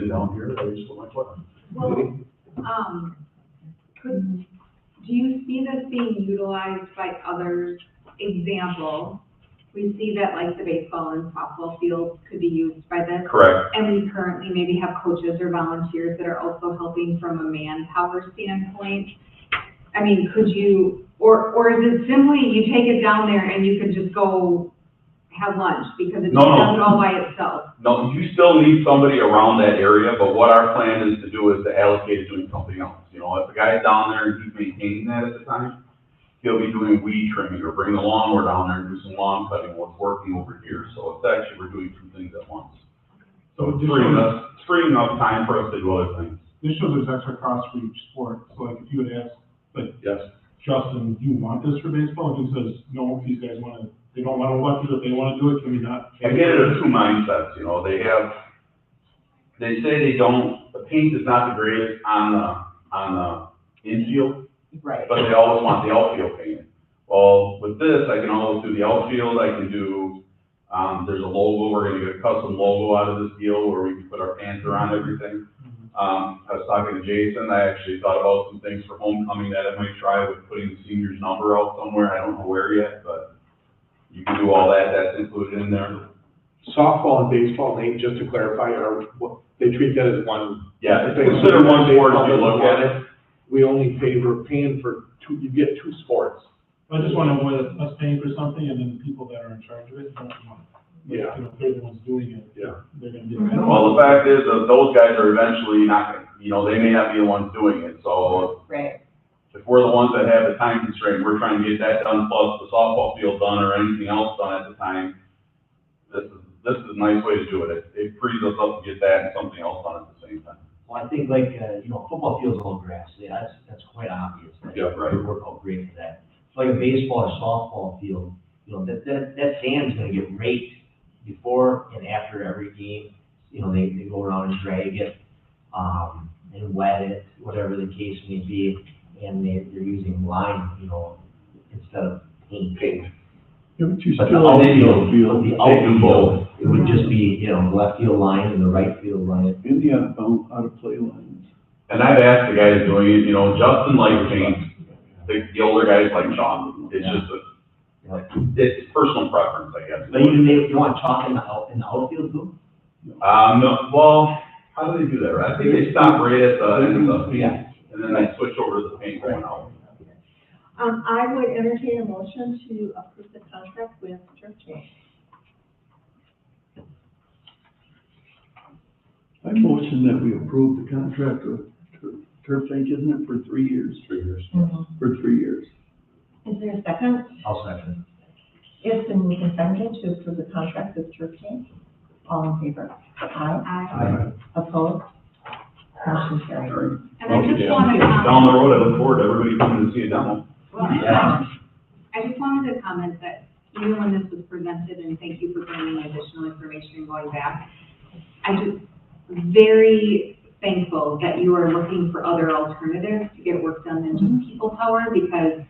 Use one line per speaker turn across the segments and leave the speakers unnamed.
down here, I just put my foot on.
Well, um, could, do you see this being utilized by others? Example, we see that like the baseball and softball fields could be used by this.
Correct,
And we currently maybe have coaches or volunteers that are also helping from a manpower standpoint. I mean, could you, or, or is it simply you take it down there and you could just go have lunch? Because it
No, no.
does it all by itself.
no, you still need somebody around that area, but what our plan is to do is to allocate it doing something else. You know, if a guy's down there and he's maintaining that at the time, he'll be doing weed trimming or bring the lawnmower down there and do some lawn cutting, what's working over here, so it's actually, we're doing two things at once. So it's freeing us, freeing up time for us to do other things.
This shows there's extra cost for each sport, so like if you would ask
Yes.
Justin, do you want this for baseball? And he says, no, if these guys wanna, they don't wanna watch it, if they wanna do it, can we not?
I get it, there's two mindsets, you know, they have, they say they don't, the paint is not the greatest on the, on the infield,
Right.
but they always want the outfield painted. Well, with this, I can always do the outfield, I can do, um, there's a logo, we're gonna get a custom logo out of this deal where we can put our panther on everything. Um, I was talking to Jason, I actually thought about some things for homecoming that I might try with putting the senior's number out somewhere, I don't know where yet, but you can do all that, that's included in there.
Softball and baseball, Nate, just to clarify, are, what- they treat that as one.
Yeah, it's considered one sport if you look at it.
We only pay, we're paying for two, you get two sports.
I just wanna avoid us paying for something and then the people that are in charge of it don't want. it.
Yeah.
You know, if they're the ones doing it.
Yeah.
They're gonna be.
Well, the fact is that those guys are eventually not gonna, you know, they may not be the ones doing it, so
Right.
if we're the ones that have the time constraint, we're trying to get that done plus the softball field done or anything else done at the time. This is, this is a nice way to do it. It, it frees us up to get that and something else done at the same time.
Well, I think like, uh, you know, football field's all grass, yeah, that's, that's quite obvious. that
Yeah, right.
It worked out great for that. It's Like a baseball or softball field, you know, that, that, that sand's gonna get raked before and after every game. You know, they, they go around and drag it, um, and wet it, whatever the case may be, and they, they're using lime, you know, instead of paint.
Yeah, but you
But the
still.
outfield, field, the
They do
outfield,
both.
it would just be, you know, left field line and the right field line.
And the out of, out of play lines.
And I've asked the guys doing it, you know, Justin likes paint, the, the older guys like chalk. It's just a,
you know,
it's personal preference, I guess.
But even if you want chalk in the out, in the outfield too?
Um, no, well, how do they do that, right? I think they stop right at the end of the,
Yeah.
and then they switch over to the paint going out.
Um, I would entertain a motion to approve the contract with Churchill.
I motion that we approve the contract with Tur- Turf Inc., isn't it, for three years? Three years. For three years.
Is there a second?
I'll second.
It's been moved and seconded to approve the contract with Churchill. All in favor? Aye.
I,
Aye.
Opposed? Motion carried.
and I just wanna.
Down the road, I look forward to everybody coming to see a demo.
Well,
Yeah.
I just wanted to comment that even when this was presented, and thank you for bringing additional information and going back, I just very thankful that you are looking for other alternatives to get work done than just
Mm-hmm.
people power, because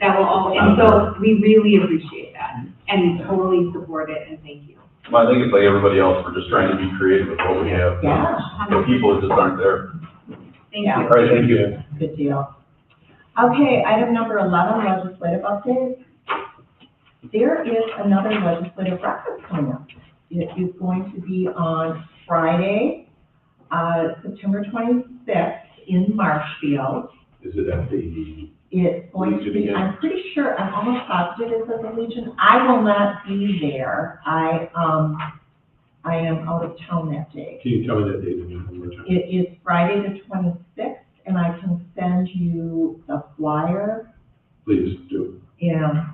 that will all, and so we really appreciate that, and totally support it, and thank you.
Well, I think it's like everybody else, we're just trying to be creative with what we have.
Yeah,
The people just aren't there.
Thank
Yeah.
you.
All right, thank you.
good deal. Okay, item number eleven, legislative update. There is another legislative breakfast coming up. It is going to be on Friday, uh, September twenty-sixth in Marshfield.
Is it at the?
It's going to
Legion
be,
again.
I'm pretty sure, I'm almost positive it's at the Legion. I will not be there. I, um, I am out of town that day.
Can you tell me that date again one more time?
It is Friday the twenty-sixth, and I can send you the flyer.
Please do.
Yeah,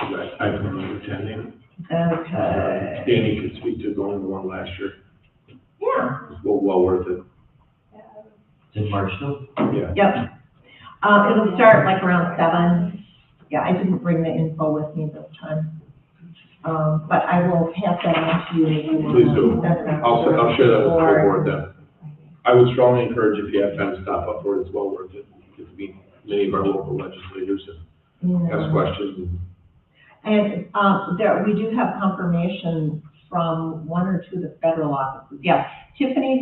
I, I don't know attending.
okay.
Danny could speak to going to one last year.
Yeah,
It was well, well worth it.
Did Marshall?
Yeah.
yep. Uh, it'll start like around seven. Yeah, I didn't bring the info with me this time. Um, but I will pass that on to you.
Please do.
Send it out
I'll,
to
I'll share that with the
board.
board then. I would strongly encourage if you have time to stop up for it, it's well worth it. Get to meet many of our local legislators and
Yeah.
ask questions.
And, um, there, we do have confirmation from one or two of the federal offices. Yeah, Tiffany